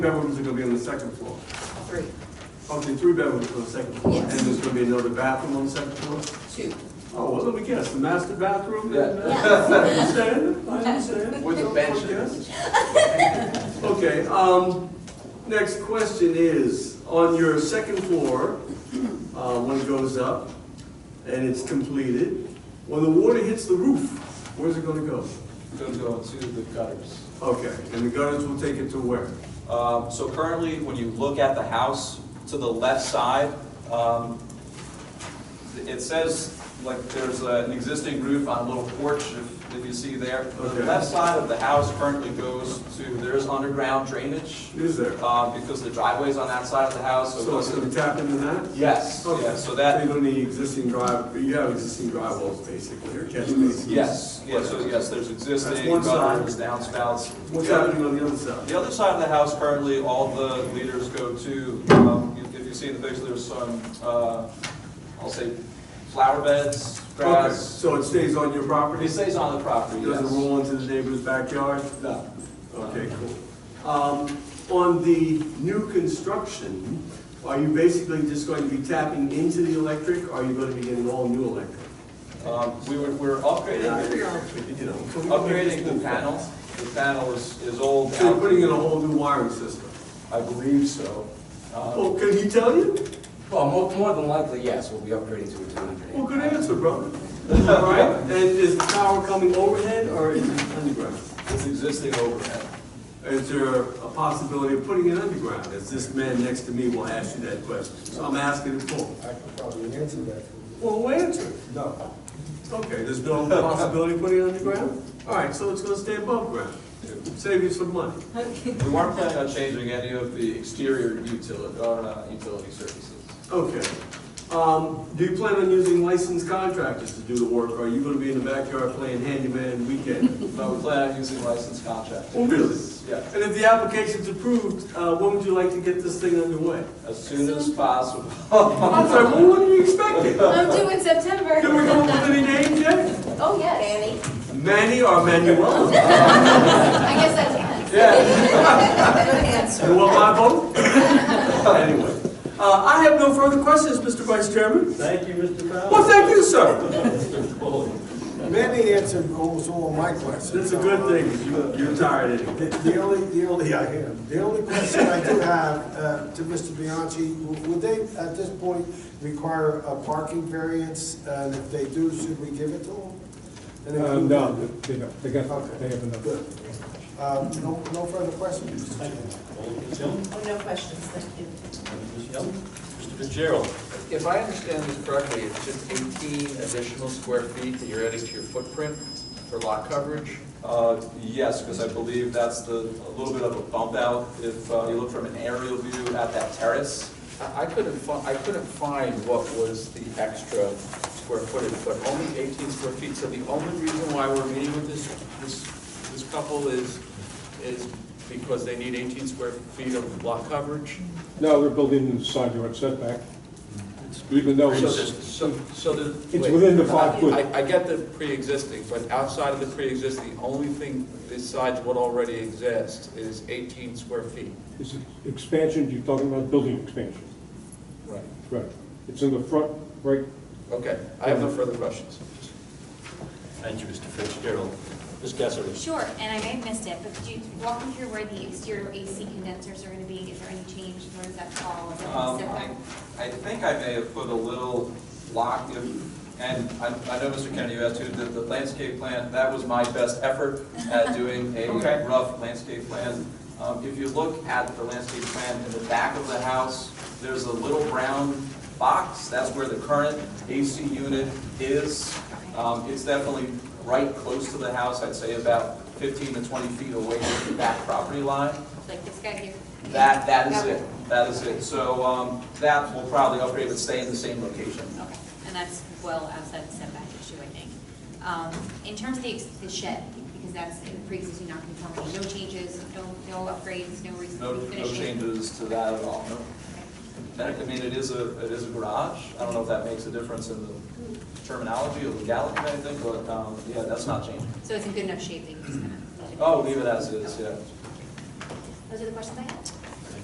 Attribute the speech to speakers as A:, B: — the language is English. A: bedrooms are gonna be on the second floor.
B: Three,
A: Okay, three bedrooms on the second floor.
B: Yes.
A: And there's gonna be another bathroom on the second floor?
B: two.
A: Oh, well, let me guess, the master bathroom? and, uh,
B: Yeah.
A: I understand, I understand.
C: With a
A: Don't
C: bench.
A: guess. Okay, um, next question is, on your second floor, uh, when it goes up and it's completed, when the water hits the roof, where's it gonna go?
C: Gonna go to the gutters.
A: Okay, and the gutters will take it to where?
D: Um, So currently, when you look at the house, to the left side, um, it says, like, there's a- an existing roof on a little porch, if if you see there. The
A: Okay.
D: left side of the house currently goes to, there is underground drainage,
A: Is there?
D: um, because the driveway's on that side of the house, so it
A: So it's gonna
D: doesn't...
A: tap into that?
D: Yes,
A: Okay.
D: yes, Oh, so that,
A: So you don't need existing drive, you have existing drywalls basically, or catch basins?
D: Mm, yes, yes, so yes, there's existing
A: one side.
D: gutters, downspouts.
A: What's
D: Yeah.
A: happening on the other side?
D: The other side of the house, currently, all the leaders go to, um, if- if you see in the picture, there's some, uh, I'll say, flower beds,
A: Okay,
D: grass.
A: So it stays on your
D: It
A: property? It
D: stays on the property, yes.
A: Doesn't roll into the neighbor's backyard?
D: No.
A: Okay, cool. Um, On the new construction, are you basically just going to be tapping into the electric? or Are you going to be getting all new electric?
D: Um, We were, we're
A: Yeah, I
D: upgrading,
A: figure I'll tweak it, you know, so we can make
D: upgrading
A: this
D: the
A: move
D: panel.
A: fast.
D: The panel is, is old.
A: So you're putting in a whole new wiring system?
D: I believe so. Um,
A: Well, can you tell you?
E: Well, more, more than likely, yes, we'll be upgrading to a 200.
A: Well, good answer, brother. All right, and is the power coming overhead or is it underground?
D: It's existing overhead.
A: Is there a possibility of putting it underground? As this man next to me will ask you that question, so I'm asking it for.
F: I could probably answer that.
A: Well, who answered?
F: No.
A: Okay, there's no possibility of putting it underground? All right, so it's gonna stay above ground, save you some money.
D: We weren't planning on changing any of the exterior utility, uh, utility services.
A: Okay. Um, do you plan on using licensed contractors to do the work, or are you gonna be in the backyard playing handyman weekend?
D: But we plan on using licensed contractors.
A: Oh, really?
D: Yeah.
A: And if the application's approved, uh, when would you like to get this thing underway?
D: As soon as possible.
A: I'm sorry, well, what are you expecting?
B: I'm due in September.
A: Can we come up with any names yet?
B: Oh, yes.
A: Manny or Manuel?
B: I guess I can.
D: Yeah.
A: You want my vote? Anyway, uh, I have no further questions, Mr. Vice Chairman.
G: Thank you, Mr. Fowler.
A: Well, thank you, sir.
F: Manny answered almost all my
A: That's
F: questions.
A: a good thing, you- you're tired anyway.
F: The the only, the only, I am, the only question I do have uh, to Mr. Bianchi, w- would they, at this point, require a parking variance? And if they do, should we give it to them? And if
H: Uh,
F: you-
H: No, they don't, they got,
F: Okay.
H: they have enough.
F: Good. Uh, No, no further questions? Mr. Chairman?
G: Ms. Young,
B: Oh, no questions, thank you.
G: Ms. Young,
C: Mr. Fitzgerald.
E: If I understand this correctly, it's just 18 additional square feet that you're adding to your footprint for lot coverage?
D: Uh, Yes, because I believe that's the, a little bit of a bump out. If uh, you look from an aerial view at that terrace,
E: I I couldn't fi, I couldn't find what was the extra square footage, but only 18 square feet. So the only reason why we're meeting with this, this, this couple is, is because they need 18 square feet of lot coverage?
H: No, they're building in the side yard setback, even though
E: So,
H: it's,
E: the- so, so the.
H: it's
E: wait.
H: within the five foot.
E: I, I get the pre-existing, but outside of the pre-existing, the only thing besides what already exists is 18 square feet.
H: It's expansion, you're talking about building expansion,
E: Right.
H: right? It's in the front, right,
E: Okay, I have no further questions.
G: thank you, Mr. Fitzgerald. Ms. Kessler.
I: Sure, and I may have missed it, but could you walk me through where the exterior AC condensers are gonna be? Is there any change? Where does that fall? Is it
D: um, I
I: separate?
D: I think I may have put a little block, if- and I I know, Mr. Kennedy, you asked too, the the landscape plan, that was my best effort at doing a rough landscape plan. Um, If you look at the landscape plan in the back of the house, there's a little brown box, that's where the current AC unit is. Um, It's definitely right close to the house, I'd say about 15 to 20 feet away from the back property line.
I: Like this guy here?
D: That, that is
I: Okay.
D: it, that is it. So um, that will probably upgrade but stay in the same location.
I: Okay, and that's well outside the setback issue, I think. Um, in terms of the, ex- the shed, because that's in pre-existing non-conformity, no changes, no, no upgrades, no reason
D: No, no
I: finishing?
D: changes to that at all.
I: Okay.
D: That- I mean, it is a, it is a garage. I don't know if that makes a difference in the terminology or legality, I think, but um, yeah, that's not changing.
I: Hmm. So it's in good enough shape that you just kind of?
D: Oh, leave it as is, yeah.
I: Those are the questions I had.